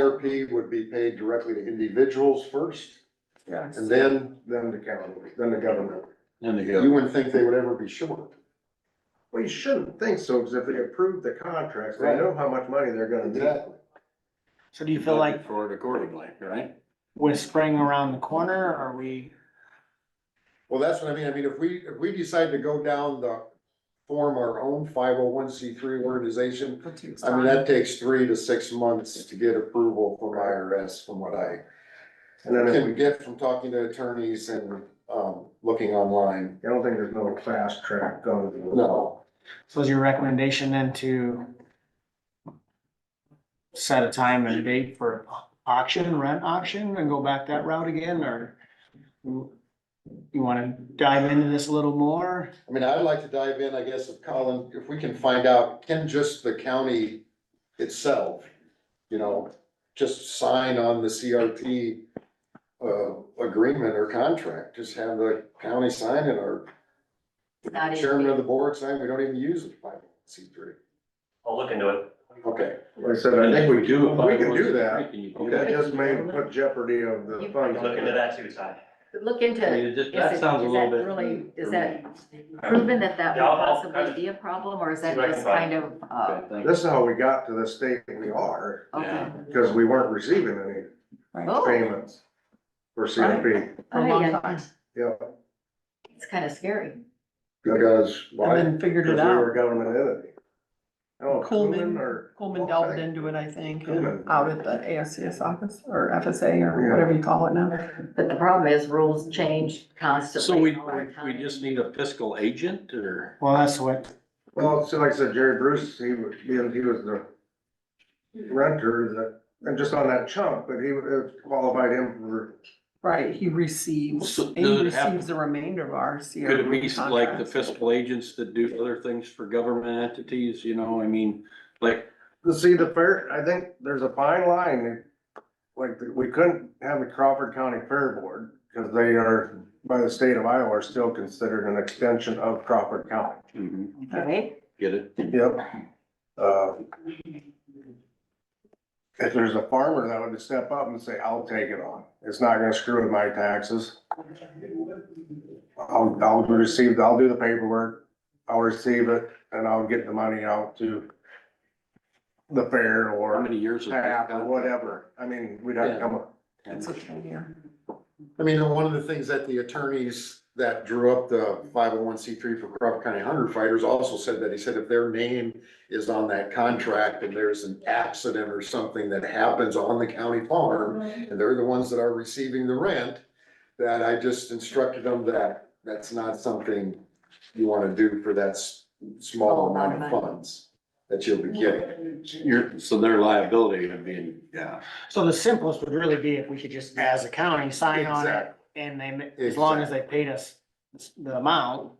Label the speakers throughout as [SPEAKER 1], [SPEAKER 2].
[SPEAKER 1] CRP would be paid directly to individuals first,
[SPEAKER 2] Yes.
[SPEAKER 1] and then
[SPEAKER 3] Then the county, then the government.
[SPEAKER 4] And they
[SPEAKER 1] you
[SPEAKER 4] go,
[SPEAKER 1] wouldn't think they would ever be short.
[SPEAKER 3] Well, you shouldn't think so, because if they approve the contracts, they
[SPEAKER 1] Right.
[SPEAKER 3] know how much money they're gonna need.
[SPEAKER 2] So do you feel like
[SPEAKER 4] For it accordingly, right?
[SPEAKER 2] we're spring around the corner, or are we,
[SPEAKER 1] Well, that's what I mean, I mean, if we, if we decide to go down the, form our own five oh one C three organization, I mean, that takes three to six months to get approval from IRS, from what I
[SPEAKER 3] And then, if we-
[SPEAKER 1] can get from talking to attorneys and, um, looking online.
[SPEAKER 3] I don't think there's no fast track going. to it.
[SPEAKER 1] No,
[SPEAKER 2] so is your recommendation then to set a time and a date for auction, rent auction, and go back that route again, or you wanna dive into this a little more?
[SPEAKER 1] I mean, I'd like to dive in, I guess, if Colin, if we can find out, can just the county itself, you know, just sign on the CRT uh, agreement or contract, just have the county sign it or
[SPEAKER 5] Not even-
[SPEAKER 1] chairman of the board sign, we don't even use the five C three.
[SPEAKER 6] I'll look into it.
[SPEAKER 1] Okay,
[SPEAKER 3] Like I said, I think we do,
[SPEAKER 4] a
[SPEAKER 3] we can
[SPEAKER 4] 501c3,
[SPEAKER 3] do that.
[SPEAKER 4] can you do
[SPEAKER 3] That
[SPEAKER 4] that?
[SPEAKER 3] just may put jeopardy of the
[SPEAKER 5] You-
[SPEAKER 3] funds.
[SPEAKER 6] Look into that too, Ty.
[SPEAKER 5] Look
[SPEAKER 4] I
[SPEAKER 5] into,
[SPEAKER 4] mean,
[SPEAKER 5] is
[SPEAKER 4] it
[SPEAKER 5] it,
[SPEAKER 4] just, that
[SPEAKER 5] is
[SPEAKER 4] sounds a
[SPEAKER 5] that
[SPEAKER 4] little bit.
[SPEAKER 5] really, is
[SPEAKER 4] for
[SPEAKER 5] that
[SPEAKER 4] me.
[SPEAKER 5] proven that that would
[SPEAKER 6] Yeah, I'll- I'll kind
[SPEAKER 5] possibly
[SPEAKER 6] of-
[SPEAKER 5] be a problem, or is that
[SPEAKER 6] see what I
[SPEAKER 5] just
[SPEAKER 6] can
[SPEAKER 5] kind
[SPEAKER 6] find.
[SPEAKER 5] of, uh,
[SPEAKER 4] Okay, thank you.
[SPEAKER 3] This is how we got to the state that we are,
[SPEAKER 5] okay?
[SPEAKER 4] Yeah.
[SPEAKER 3] because we weren't receiving any
[SPEAKER 5] Oh,
[SPEAKER 3] payments for CRP.
[SPEAKER 5] oh, yeah,
[SPEAKER 3] Yeah,
[SPEAKER 5] it's kind of scary.
[SPEAKER 1] because,
[SPEAKER 7] And
[SPEAKER 1] why?
[SPEAKER 7] then figured
[SPEAKER 3] because
[SPEAKER 7] it
[SPEAKER 3] we were a
[SPEAKER 7] out.
[SPEAKER 3] government entity. Oh,
[SPEAKER 7] Coleman.
[SPEAKER 3] Coleman or.
[SPEAKER 7] Coleman delved into it, I think,
[SPEAKER 3] Coleman.
[SPEAKER 7] and out at the ASCS office or FSA or whatever you call it now.
[SPEAKER 5] But the problem is rules change constantly.
[SPEAKER 4] So we,
[SPEAKER 5] all the
[SPEAKER 4] we
[SPEAKER 5] time.
[SPEAKER 4] just need a fiscal agent or?
[SPEAKER 2] Well, that's what,
[SPEAKER 3] Well, so like I said, Jerry Bruce, he was, he was he was the renter that, and just on that chunk, but he would have qualified him for,
[SPEAKER 7] Right, he receives,
[SPEAKER 4] So
[SPEAKER 7] and he
[SPEAKER 4] does it have-
[SPEAKER 7] receives the remainder of our CRP
[SPEAKER 4] Could it be like the
[SPEAKER 7] contracts.
[SPEAKER 4] fiscal agents that do other things for government entities, you know, I mean, like,
[SPEAKER 3] to see the fair, I think there's a fine line. Like, we couldn't have the Crawford County Fair Board, because they are, by the state of Iowa, are still considered an extension of Crawford County.
[SPEAKER 4] mhm,
[SPEAKER 5] Right?
[SPEAKER 4] get it?
[SPEAKER 3] Yep. Uh, If there's a farmer that would step up and say, I'll take it on, it's not gonna screw with my taxes. I'll, I'll receive, I'll do the paperwork, I'll receive it, and I'll get the money out to the fair
[SPEAKER 4] How
[SPEAKER 3] or
[SPEAKER 4] many years? of
[SPEAKER 3] tap or whatever, I mean, we'd have to come up.
[SPEAKER 7] It's a ten year.
[SPEAKER 1] I mean, and one of the things that the attorneys that drew up the five oh one C three for Crawford County Hunter Fighters also said that, he said if their name is on that contract and there's an accident or something that happens on the county farm, and they're the ones that are receiving the rent, that I just instructed them that that's not something you wanna do for that s- small
[SPEAKER 5] Small
[SPEAKER 1] amount
[SPEAKER 5] amount
[SPEAKER 1] of
[SPEAKER 5] of money.
[SPEAKER 1] funds that you'll be getting.
[SPEAKER 4] You're, so their liability would be, yeah.
[SPEAKER 2] so the simplest would really be if we could just, as a county, sign on it,
[SPEAKER 1] Exactly.
[SPEAKER 2] and they, ma- as long as they paid us the amount,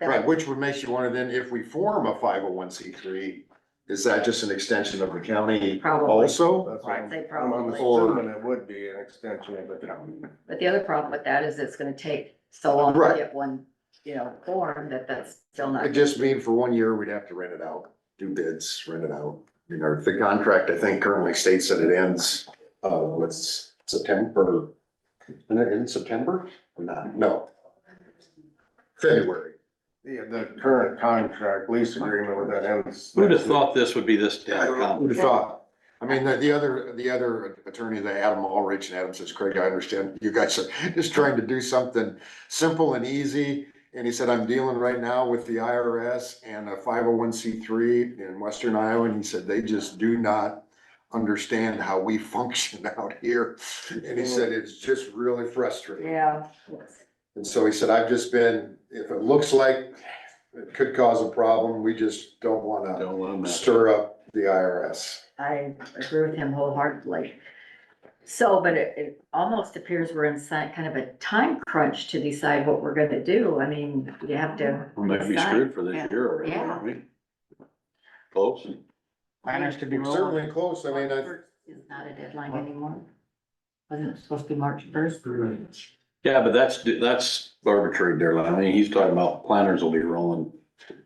[SPEAKER 1] Right, which would make you wonder then, if we form a five oh one C three, is that just an extension of the county
[SPEAKER 5] Probably.
[SPEAKER 1] also?
[SPEAKER 3] That's what I'm-
[SPEAKER 5] They
[SPEAKER 3] I'm
[SPEAKER 5] probably-
[SPEAKER 3] assuming it would be an extension of the county.
[SPEAKER 5] But the other problem with that is it's gonna take so long to
[SPEAKER 1] Right.
[SPEAKER 5] get one, you know, form that that's still not.
[SPEAKER 1] It just mean for one year, we'd have to rent it out, do bids, rent it out. You know, the contract, I think currently states that it ends, uh, what's September? And it ends September? Or not? No. February.
[SPEAKER 3] Yeah, the current contract lease agreement with that ends.
[SPEAKER 4] Who'd have thought this would be this
[SPEAKER 1] Yeah,
[SPEAKER 4] damn
[SPEAKER 1] I would have
[SPEAKER 4] complicated?
[SPEAKER 1] thought. I mean, the, the other, the other attorney, the Adam Ulrich, and Adam says, Craig, I understand you guys are just trying to do something simple and easy. And he said, I'm dealing right now with the IRS and a five oh one C three in Western Iowa, and he said, they just do not understand how we function out here. And he said, it's just really frustrating.
[SPEAKER 5] Yeah.
[SPEAKER 1] And so he said, I've just been, if it looks like it could cause a problem, we just don't wanna
[SPEAKER 4] Don't let 'em mess.
[SPEAKER 1] stir up the IRS.
[SPEAKER 5] I agree with him wholeheartedly. So, but it, it almost appears we're in si- kind of a time crunch to decide what we're gonna do. I mean, you have to,
[SPEAKER 4] We might be
[SPEAKER 5] Decide.
[SPEAKER 4] screwed for this year already,
[SPEAKER 5] Yeah.
[SPEAKER 4] aren't we? Close.
[SPEAKER 2] planners to be
[SPEAKER 1] We're
[SPEAKER 2] rolling.
[SPEAKER 1] Certainly close, I mean, I,
[SPEAKER 5] is not a deadline anymore. Wasn't it supposed to be March first?
[SPEAKER 4] Yeah, but that's, that's arbitrary, Darrell. I mean, he's talking about planters will be rolling.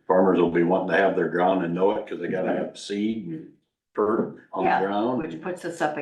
[SPEAKER 4] Farmers will be wanting to have their ground and know it because they gotta have seed and dirt on the
[SPEAKER 5] Yeah,
[SPEAKER 4] ground.
[SPEAKER 5] Which puts us up